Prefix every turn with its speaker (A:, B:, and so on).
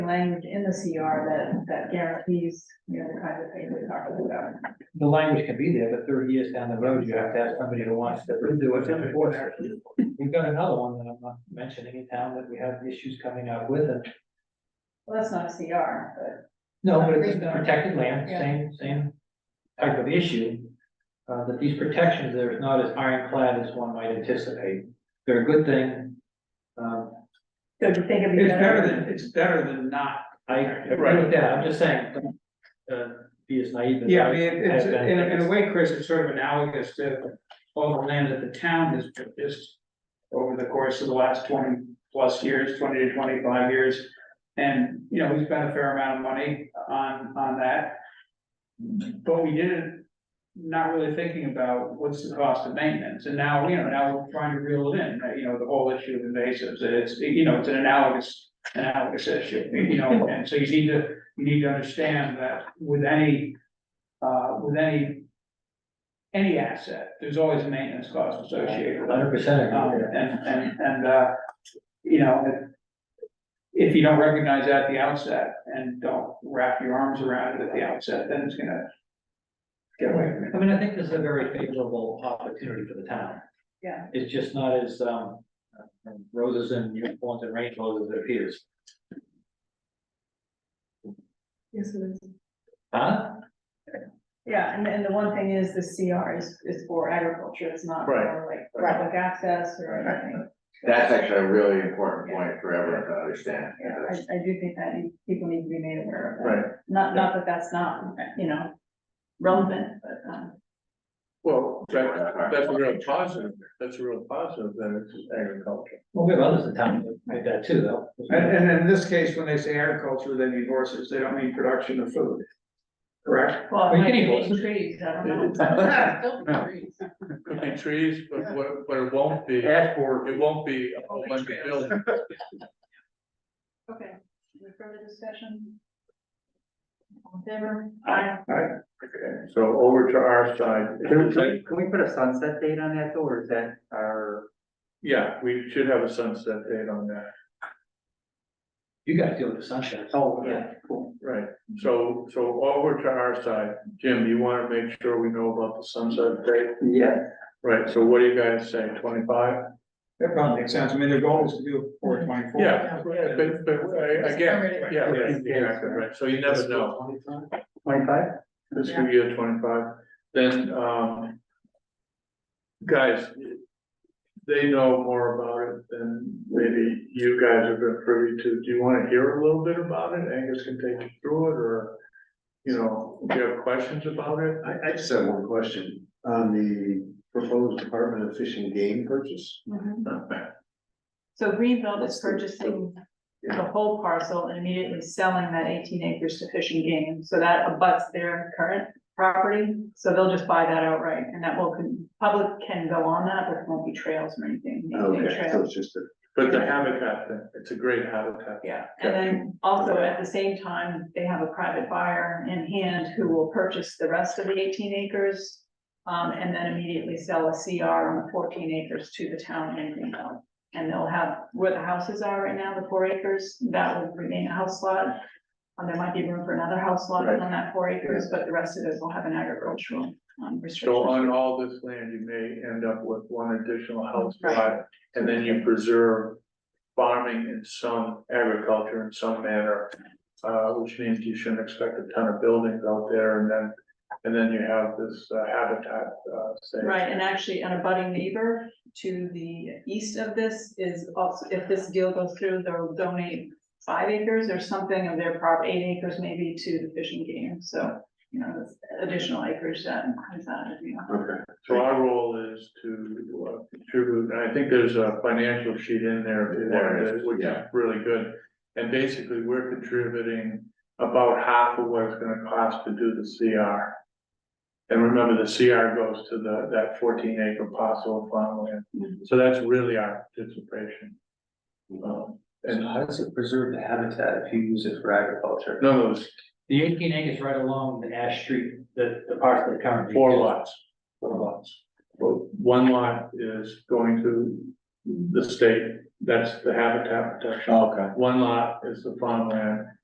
A: language in the CR that, that guarantees, you know, the kinds of things we talked about.
B: The language can be there, but thirty years down the road, you have to have somebody to watch that will do it. We've got another one that I'm not mentioning in town that we have issues coming up with and
A: Well, that's not a CR, but
B: No, but it's protected land, same, same type of issue. Uh, that these protections, they're not as ironclad as one might anticipate. They're a good thing. Um,
A: so do you think it'd be
C: It's
A: better?
C: better than, it's better than not.
B: I agree with that. I'm just saying, don't, uh, be as naive as.
C: Yeah, I
B: I
C: mean, it's,
B: have been.
C: in a, in a way, Chris, it's sort of analogous to all the land that the town has purchased over the course of the last twenty plus years, twenty to twenty-five years. And, you know, we spent a fair amount of money on, on that. But we did it not really thinking about what's the cost of maintenance, and now, you know, now we're trying to reel it in, uh, you know, the whole issue of invasives, it's, you know, it's an analogous. Analogous issue, you know, and so you need to, you need to understand that with any. Uh, with any. Any asset, there's always a maintenance cost associated with it.
B: Hundred percent
C: Um,
B: agree with that.
C: and, and, and, uh, you know, if. If you don't recognize that at the outset and don't wrap your arms around it at the outset, then it's gonna. Get away from you.
B: I mean, I think this is a very favorable opportunity for the town.
A: Yeah.
B: It's just not as, um, roses and unicorns and rainbows as it appears.
A: Yes, it is.
B: Huh?
A: Yeah, and, and the one thing is the CR is, is for agriculture, it's not for like
D: Right.
A: public access or anything.
D: That's actually a really important point for everyone to understand.
A: Yeah, I, I do think that you- people need to be made aware of that.
D: Right,
A: Not, not that that's not, you know, relevant, but, um,
E: Well, that, that's a real positive, that's a real positive, that it's agriculture.
B: Well, we have others in town that make that too, though.
C: And, and in this case, when they say agriculture, they mean horses, they don't mean production of food. Correct?
A: well, it
B: We
A: might
B: can
A: be
B: equal it.
A: trees, I don't
C: No.
A: know.
E: Could be trees, but what, but it won't be, it
C: Ask for.
E: won't be a whole bunch of buildings.
A: Okay, any further discussion? All in favor?
C: Aye.
E: Okay, So over to our
F: Can
E: side.
F: we, can we put a sunset date on that though, or is that our,
E: Yeah, we should have a sunset date on that,
B: You guys deal with the sunshine.
F: oh, yeah, cool.
E: right? So, so over to our side, Jim, you wanna make sure we know about the sunset date?
F: Yeah.
E: Right, so what do you guys say, twenty-five?
C: That probably makes sense, I mean, their goal is to do four twenty-four.
E: Yeah, yeah, but, but I- again, yeah, right, exactly, right, so you never know.
F: Twenty-five?
E: fiscal year twenty-five, then, um. Guys, they know more about it than maybe you guys have been privy to, do you wanna hear a little bit about it, Angus can take you through it, or? You know, do you have questions about it?
G: I, I just have one question on the proposed Department of Fish and Game purchase.
A: Mhm. So Greenfield is purchasing the whole parcel and immediately selling that eighteen acres to fishing game, so that abuts their current property. So they'll just buy that outright, and that will, con- public can go on that, but it won't be trails or anything, maintain
G: Okay, so
A: trails.
G: it's just a,
E: But the habitat thing, it's a great habitat.
A: Yeah, and then also at the same time, they have a private buyer in hand who will purchase the rest of the eighteen acres. Um, and then immediately sell a CR on the fourteen acres to the town in Greenfield. And they'll have where the houses are right now, the four acres, that will remain a house lot. Um, there might be room for another house lot
E: Right.
A: on that four acres, but the rest of it will have an agricultural um
E: So
A: restriction.
E: on all this land, you may end up with one additional house lot, and then you preserve farming in some agriculture in some manner. Uh, which means you shouldn't expect a ton of buildings out there, and then, and then you have this uh, habitat, uh, say.
A: Right, and actually an abutting neighbor to the east of this is also, if this deal goes through, they'll donate five acres or something of their prop, eight acres maybe to the fishing game, so, you know, that's additional acreage that comes out of, you know.
G: okay,
E: So our role is to uh, contribute, and I think there's a financial sheet in there, if you want
G: There
E: it,
G: is,
E: which is
G: yeah.
E: really good. And basically, we're contributing about half of what it's gonna cost to do the CR. And remember, the CR goes to the, that fourteen acre parcel of farmland,
G: Mm-hmm.
E: so that's really our participation. Um, And
B: how does it preserve the habitat if you use it for agriculture?
E: none of those,
B: The eighteen acres right along the Ash Street, the, the part that currently.
E: four
B: is-
E: lots,
B: Four lots.
E: Well, one lot is going to the state, that's the habitat protection.
B: Okay.
E: One lot is the farmland,